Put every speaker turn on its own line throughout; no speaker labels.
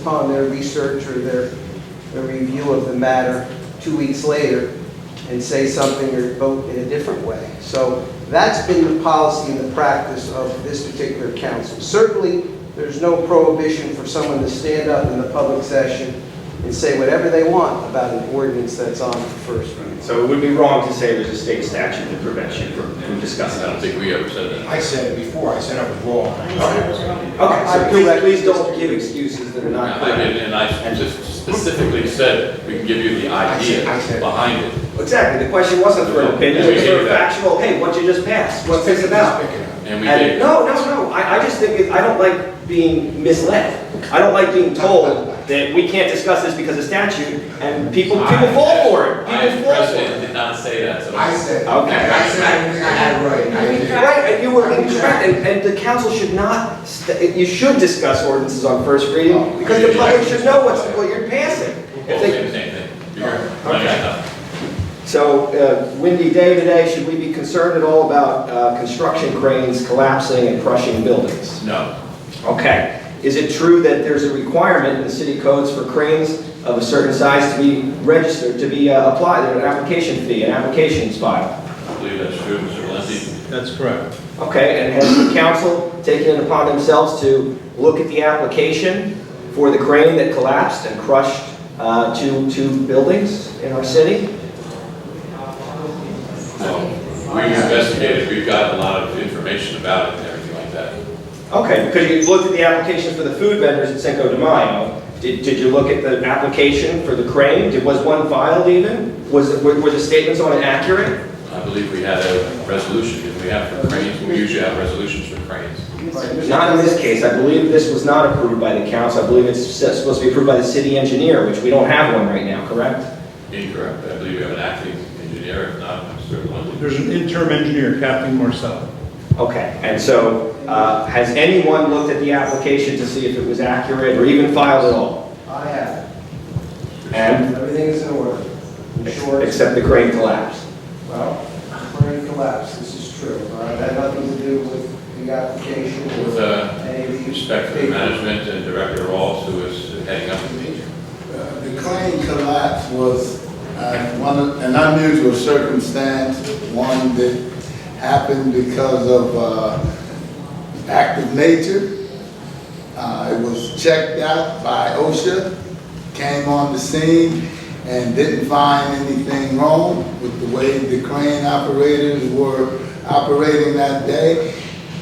upon their research or their, their review of the matter two weeks later and say something or vote in a different way. So that's been the policy and the practice of this particular council. Certainly, there's no prohibition for someone to stand up in the public session and say whatever they want about an ordinance that's on for first reading.
So it would be wrong to say there's a state statute that prevents you from from discussing
I don't
that.
think we ever said that.
I said it before, I said I was wrong.
Okay, so please, please don't give excuses that are not
I
correct.
did, and I just specifically said, we can give you the idea
I said- I said-
behind it.
Exactly, the question wasn't for an opinion, it was for a factual, hey, what you just passed, what's this about?
Pick it up.
And we
And,
did.
no, no, no, I, I just think, it- I don't like being misled. I don't like being told that we can't discuss this because of statute, and people, people fall for it,
I,
people fall for
President,
it.
did not say that, so.
I said,
Okay.
I said everything I had right, and I did.
Right, and you were incorrect, and, and the council should not, st- you should discuss ordinances on first reading, because the public should know what's, what you're passing. If
Well,
they-
same, same thing. You're
All right,
running
okay.
out of time.
So uh, windy day today, should we be concerned at all about uh, construction cranes collapsing and crushing buildings?
No,
Okay. Is it true that there's a requirement in the city codes for cranes of a certain size to be registered, to be uh, applied, there's an application fee, an applications filed?
I believe that's true, Mr. Lindsey.
That's correct.
Okay, and has the council taken it upon themselves to look at the application for the crane that collapsed and crushed uh, two, two buildings in our city?
Well, we investigated, we've got a lot of information about it and everything like that.
Okay, because you looked at the application for the food vendors at Cinco de Mayo. Did, did you look at the application for the crane? Did, was one filed even? Was, it- were were the statements on it accurate?
I believe we had a resolution, did we have for cranes? We usually have resolutions for cranes.
Not in this case. I believe this was not approved by the council. I believe it's s- supposed to be approved by the city engineer, which we don't have one right now, correct?
Incorrect, I believe we have an acting engineer, if not, Mr. Lindsey.
There's an interim engineer, Captain Marcel.
Okay, and so, uh, has anyone looked at the application to see if it was accurate or even filed at all?
I have,
And,
everything is in order. I'm sure-
except the crane collapsed?
Well, brain collapse, this is true. All right, that had nothing to do with the application
With,
or
uh,
any of the...
Respect for management and Director Rawls, who is heading up the meeting.
Uh, The crane collapse was uh, one, of- an unusual circumstance, one that happened because of uh, active nature. Uh, It was checked out by OSHA, came on the scene, and didn't find anything wrong with the way the crane operators were operating that day.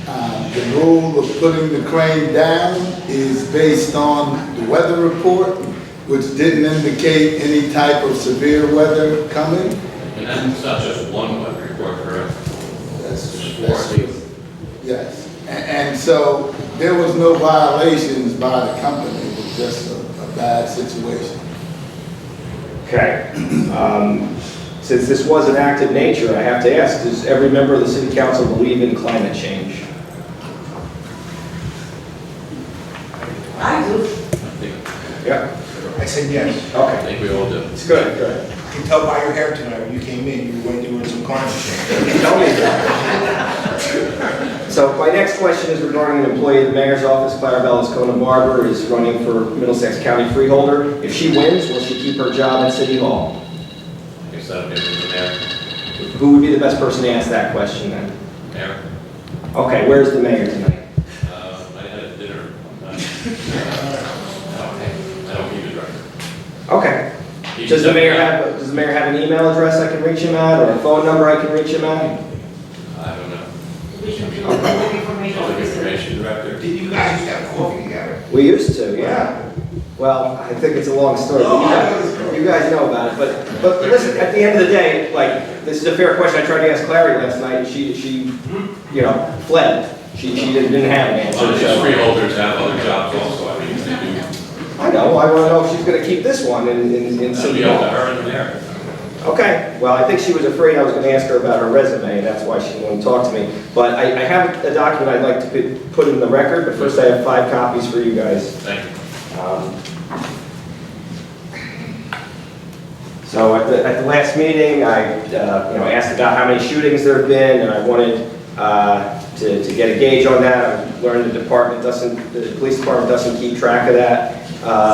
Uh, The rule of putting the crane down is based on the weather report, which didn't indicate any type of severe weather coming.
And that's not just one weather report, correct?
That's,
There's four
that's
of these.
Yes, A- and so there was no violations by the company, it was just a a bad situation.
Okay. Um, Since this was an act of nature, I have to ask, does every member of the city council believe in climate change?
I do.
I think,
Yeah.
I said yes.
I
Okay.
think we all do.
It's good, good.
You can tell by your hair tonight, when you came in, you were way doing some climate change.
Tell me that. So my next question is regarding an employee of the mayor's office, Clarabelle Escona Barber, is running for Middlesex County Freeholder. If she wins, will she keep her job at City Hall?
I guess that'll be it for the mayor.
Who would be the best person to ask that question then?
Mayor,
Okay, where's the mayor tonight?
uh, I had a dinner one time. Uh, Okay, I don't keep it right.
Okay. Does the mayor have, does the mayor have an email address I can reach him at, or a phone number I can reach him at?
I don't know.
We should be looking for information.
Public information director.
Did you guys used to have coffee together?
We used to, yeah. Well, I think it's a long story.
No,
You
I
guys-
know it's a story.
You guys know about it, but, but listen, at the end of the day, like, this is a fair question. I tried to ask Clary last night, and she, she, you know, fled. She, she didn't didn't have an
Well,
answer,
these
so.
freeholders have other jobs also, I mean, they do.
I know, I wanna know if she's gonna keep this one in, in, in
That'll
City
be up to
Hall.
her and the mayor.
Okay, well, I think she was afraid I was gonna ask her about her resume, and that's why she wouldn't talk to me. But I, I have a document I'd like to put- put in the record, but first I have five copies for you guys.
Thank you.
Um, So at the, at the last meeting, I, uh, you know, asked about how many shootings there have been, and I wanted uh, to, to get a gauge on that. I learned the department doesn't, the police department doesn't keep track of that. Uh,